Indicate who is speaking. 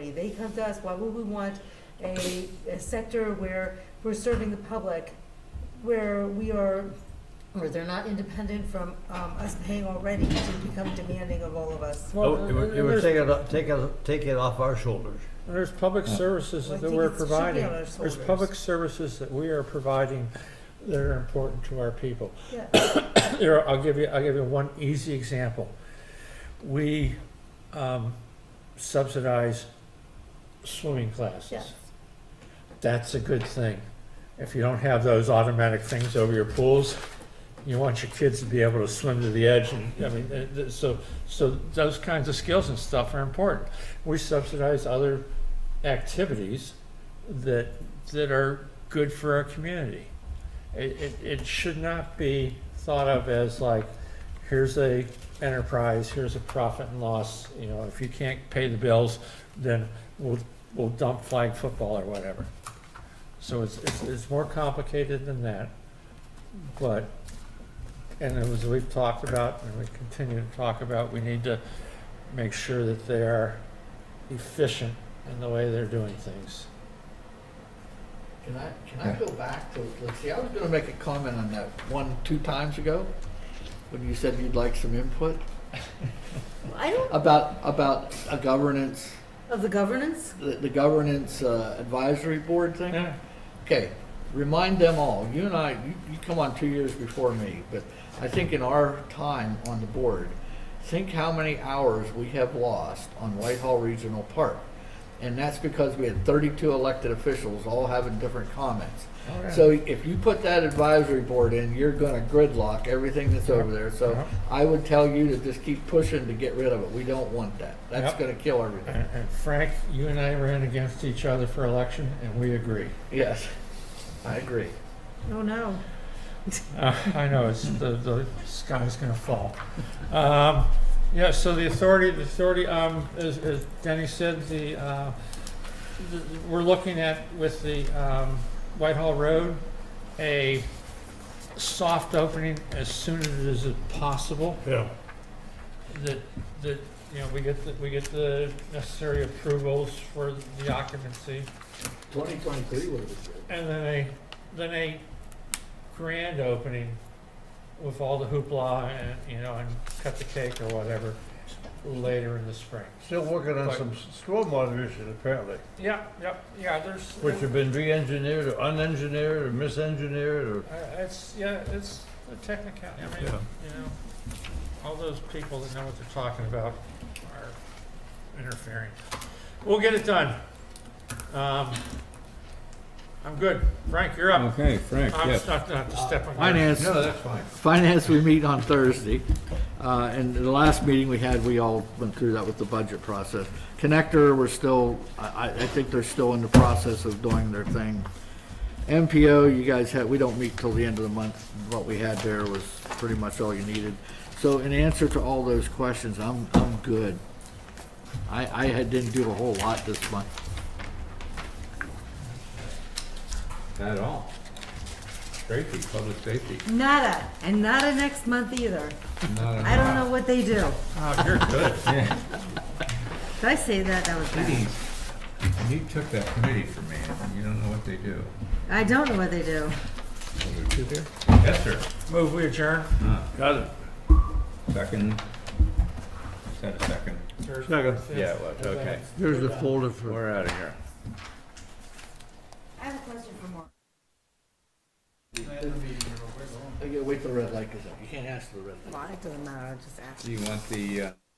Speaker 1: community. They come to us, why would we want a, a sector where we're serving the public, where we are, where they're not independent from, um, us paying already to become demanding of all of us?
Speaker 2: Well,
Speaker 3: Oh, it
Speaker 2: and
Speaker 3: would, it
Speaker 2: there's,
Speaker 3: would take it, take it, take it off our shoulders.
Speaker 2: and there's public services
Speaker 1: Well, I
Speaker 2: that
Speaker 1: think
Speaker 2: we're
Speaker 1: it should be
Speaker 2: providing.
Speaker 1: on our
Speaker 2: There's
Speaker 1: shoulders.
Speaker 2: public services that we are providing that are important to our people.
Speaker 1: Yeah.
Speaker 2: Here, I'll give you, I'll give you one easy example. We um, subsidize swimming classes.
Speaker 1: Yes.
Speaker 2: That's a good thing. If you don't have those automatic things over your pools, you want your kids to be able to swim to the edge and, I mean, uh, th- so, so those kinds of skills and stuff are important. We subsidize other activities that, that are good for our community. It, it, it should not be thought of as like, here's a enterprise, here's a profit and loss, you know, if you can't pay the bills, then we'll, we'll dump flag football or whatever. So it's, it's, it's more complicated than that, but, and it was, we've talked about, and we continue to talk about, we need to make sure that they are efficient in the way they're doing things.
Speaker 4: Can I, can I go back to, let's see, I was gonna make a comment on that one, two times ago, when you said you'd like some input
Speaker 1: I don't,
Speaker 4: about, about a governance,
Speaker 1: of the governance?
Speaker 4: the, the governance uh, advisory board thing.
Speaker 2: Yeah,
Speaker 4: Okay, remind them all, you and I, you, you come on two years before me, but I think in our time on the board, think how many hours we have lost on Whitehall Regional Park. And that's because we had thirty-two elected officials all having different comments.
Speaker 2: all right.
Speaker 4: So if you put that advisory board in, you're gonna gridlock everything that's over there. So
Speaker 5: Uh-huh.
Speaker 2: Yep.
Speaker 4: I would tell you to just keep pushing to get rid of it. We don't want that. That's
Speaker 2: Yep.
Speaker 4: gonna kill everything.
Speaker 2: And and Frank, you and I ran against each other for election, and we agree.
Speaker 4: Yes, I agree.
Speaker 1: Oh, no.
Speaker 2: Uh, I know, it's, the, the sky's gonna fall. Um, yeah, so the authority, the authority, um, as, as Denny said, the, uh, th- we're looking at with the, um, Whitehall Road, a soft opening as soon as is possible,
Speaker 3: Yeah.
Speaker 2: that, that, you know, we get, the we get the necessary approvals for the occupancy.
Speaker 4: Twenty twenty-three would have been
Speaker 2: And then a, then a grand opening with all the hoopla and, you know, and cut the cake or whatever later in the spring.
Speaker 3: Still working on
Speaker 2: Right.
Speaker 3: some s- stormwater issues apparently,
Speaker 2: Yeah, yep, yeah, there's,
Speaker 3: which have been re-engineered or unengineered or misengineered or.
Speaker 2: Uh, it's, yeah, it's a technical, I mean, you
Speaker 3: Yeah.
Speaker 2: know, all those people that know what they're talking about are interfering. We'll get it done. Um, I'm good. Frank, you're up.
Speaker 5: Okay, Frank,
Speaker 2: I'm
Speaker 5: yes.
Speaker 2: just not, not to step on. your-
Speaker 4: Finance,
Speaker 3: that's fine.
Speaker 4: finance, we meet on Thursday. Uh, and the last meeting we had, we all went through that with the budget process. Connector, we're still, I, I, I think they're still in the process of doing their thing. MPO, you guys had, we don't meet till the end of the month. What we had there was pretty much all you needed. So in answer to all those questions, I'm, I'm good. I, I had- didn't do a whole lot this month.
Speaker 5: Not at all. Safety, public safety.
Speaker 1: Nada, and nada next month either.
Speaker 5: Not at
Speaker 1: I don't know what they do.
Speaker 2: Oh, you're good.
Speaker 1: Did I say that? That was
Speaker 5: all.
Speaker 1: bad.
Speaker 5: Please, You took that committee from me, and you don't know what they do.
Speaker 1: I don't know what they do.
Speaker 5: Yes, sir.
Speaker 2: Move we adjourn.
Speaker 3: Got it.
Speaker 5: Second. Is that a second?
Speaker 3: Second.
Speaker 5: Yeah, it was, okay.
Speaker 3: Here's the folder for.
Speaker 5: We're out of here.
Speaker 1: I have a question for Mark.
Speaker 4: I gotta wait till the red light goes out. You can't ask for the red light.
Speaker 1: Well, it doesn't matter. I'm just asking.
Speaker 5: Do you want the, uh?